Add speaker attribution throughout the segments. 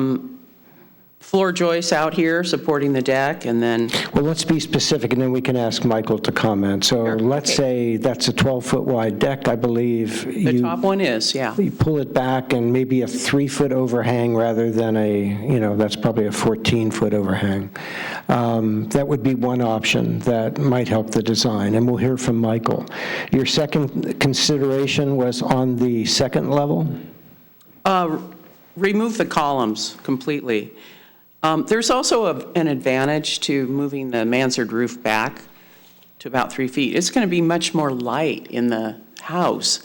Speaker 1: Um, floor joists out here supporting the deck, and then,
Speaker 2: Well, let's be specific, and then we can ask Michael to comment. So let's say that's a 12-foot wide deck, I believe.
Speaker 1: the
Speaker 2: You-
Speaker 1: top one is, yeah.
Speaker 2: You pull it back and maybe a three-foot overhang rather than a, you know, that's probably a 14-foot overhang. Um, That would be one option that might help the design, and we'll hear from Michael. Your second consideration was on the second level?
Speaker 1: Remove the columns completely. Um, There's also a- an advantage to moving the mansard roof back to about three feet. It's going to be much more light in the house.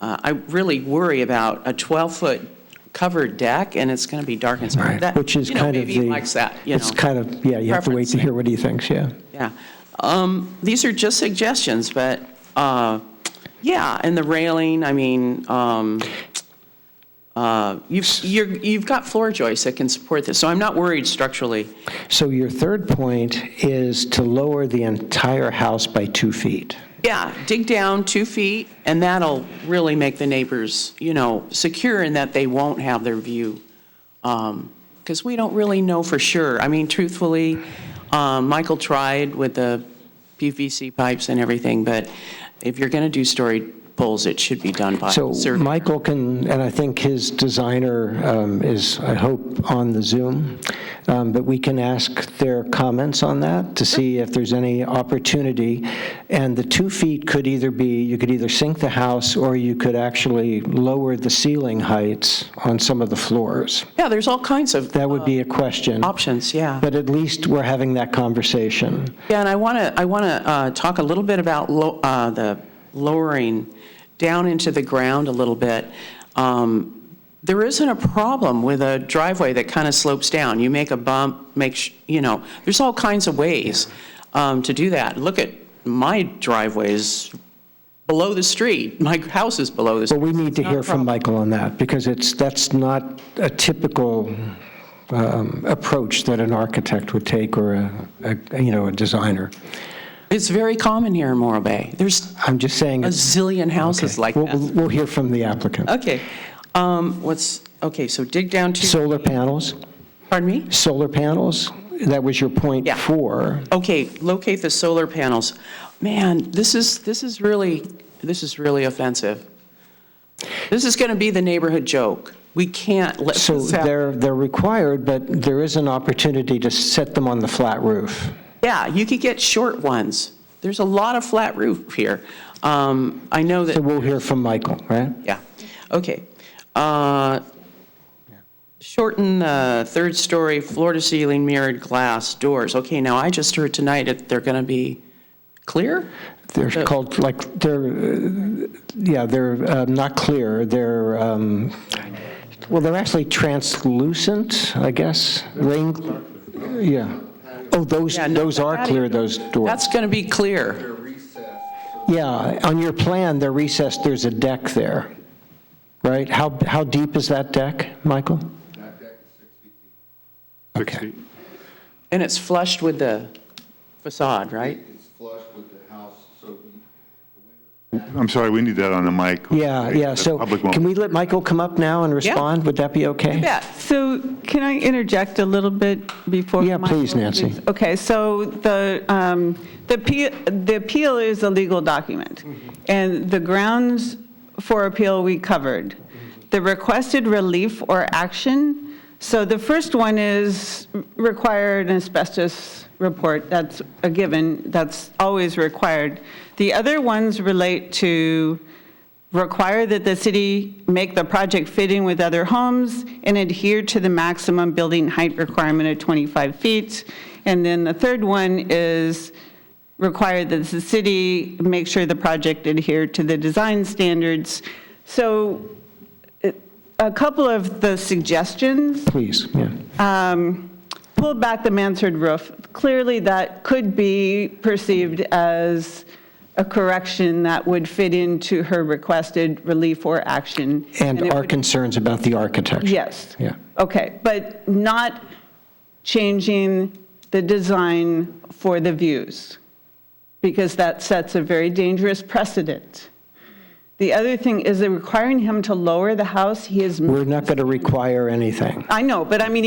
Speaker 1: Uh, I really worry about a 12-foot covered deck, and it's going to be dark inside. That-
Speaker 2: Which is
Speaker 1: you know,
Speaker 2: kind of the...
Speaker 1: Maybe he likes that, you know.
Speaker 2: It's kind of, yeah, you have to
Speaker 1: preference
Speaker 2: wait to
Speaker 1: there.
Speaker 2: hear what he thinks, yeah.
Speaker 1: Yeah. Um, These are just suggestions, but, uh, yeah, and the railing, I mean, um, uh, you've, you're- you've got floor joists that can support this, so I'm not worried structurally.
Speaker 2: So your third point is to lower the entire house by two feet.
Speaker 1: Yeah, dig down two feet, and that'll really make the neighbors, you know, secure in that they won't have their view. Because we don't really know for sure. I mean, truthfully, um, Michael tried with the PVC pipes and everything, but if you're going to do story poles, it should be done by
Speaker 2: So
Speaker 1: survey.
Speaker 2: Michael can, and I think his designer um, is, I hope, on the Zoom, um, but we can ask their comments on that to see if there's any opportunity. And the two feet could either be, you could either sink the house, or you could actually lower the ceiling heights on some of the floors.
Speaker 1: Yeah, there's all kinds of
Speaker 2: That would be a question,
Speaker 1: options, yeah.
Speaker 2: but at least we're having that conversation.
Speaker 1: Yeah, and I want to, I want to talk a little bit about lo- uh, the lowering down into the ground a little bit. Um, There isn't a problem with a driveway that kind of slopes down. You make a bump, make, sh- you know, there's all kinds of ways um, to do that. Look at, my driveway is below the street, my house is below the
Speaker 2: But
Speaker 1: street.
Speaker 2: we need to
Speaker 1: not a
Speaker 2: hear from
Speaker 1: problem.
Speaker 2: Michael on that, because it's, that's not a typical um, approach that an architect would take or a, a- you know, a designer.
Speaker 1: It's very common here in Morro Bay. There's
Speaker 2: I'm just saying,
Speaker 1: a
Speaker 2: it's-
Speaker 1: zillion houses like
Speaker 2: we'll,
Speaker 1: that.
Speaker 2: we'll we'll hear from the applicant.
Speaker 1: Okay, um, what's, okay, so dig down to,
Speaker 2: Solar panels,
Speaker 1: pardon me?
Speaker 2: solar panels, that was your point
Speaker 1: Yeah.
Speaker 2: four.
Speaker 1: Okay, locate the solar panels. Man, this is, this is really, this is really offensive. This is going to be the neighborhood joke. We can't let
Speaker 2: So
Speaker 1: this happen.
Speaker 2: they're, they're required, but there is an opportunity to set them on the flat roof.
Speaker 1: Yeah, you could get short ones. There's a lot of flat roof here. Um, I know
Speaker 2: So
Speaker 1: that,
Speaker 2: we'll hear from Michael, right?
Speaker 1: yeah, okay. Uh, Shorten uh, the third-story floor-to-ceiling mirrored glass doors. Okay, now I just heard tonight that they're going to be clear?
Speaker 2: They're
Speaker 1: So-
Speaker 2: called, like, they're, uh, yeah, they're uh, not clear, they're, um, well, they're actually translucent, I guess, rain, yeah. Oh, those,
Speaker 1: Yeah, no,
Speaker 2: those are
Speaker 1: that-
Speaker 2: clear, those doors.
Speaker 1: That's going to be clear.
Speaker 2: Yeah, on your plan, they're recessed, there's a deck there, right? How, how deep is that deck, Michael?
Speaker 3: Six
Speaker 2: Okay.
Speaker 3: feet.
Speaker 1: And it's flushed with the facade, right?
Speaker 4: It's flush with the house, so you-
Speaker 3: I'm sorry, we need that on the mic.
Speaker 2: Yeah, yeah,
Speaker 3: The
Speaker 2: so
Speaker 3: public won't-
Speaker 2: can we let Michael come up now and respond? Would that be okay?
Speaker 1: Yeah,
Speaker 5: So can I interject a little bit before?
Speaker 2: Yeah,
Speaker 5: Michael
Speaker 2: please, Nancy.
Speaker 5: speaks? Okay, so the, um, the appeal- the appeal is a legal document,
Speaker 2: Mm-hmm.
Speaker 5: and the grounds for appeal we covered.
Speaker 2: Mm-hmm.
Speaker 5: The requested relief or action, so the first one is require an asbestos report, that's a given, that's always required. The other ones relate to require that the city make the project fit in with other homes and adhere to the maximum building height requirement of 25 feet. And then the third one is require that the city make sure the project adhere to the design standards. So it- a couple of the suggestions
Speaker 2: Please, yeah.
Speaker 1: Uh,
Speaker 5: um, pull back the mansard roof. Clearly, that could be perceived as a correction that would fit into her requested relief or action.
Speaker 2: And
Speaker 5: it
Speaker 2: our
Speaker 5: would-
Speaker 2: concerns about the architecture.
Speaker 5: Yes.
Speaker 2: Yeah.
Speaker 5: Okay, but not changing the design for the views, because that sets a very dangerous precedent. The other thing is they're requiring him to lower the house. He is,
Speaker 2: We're not going to require anything.
Speaker 5: I know, but I mean,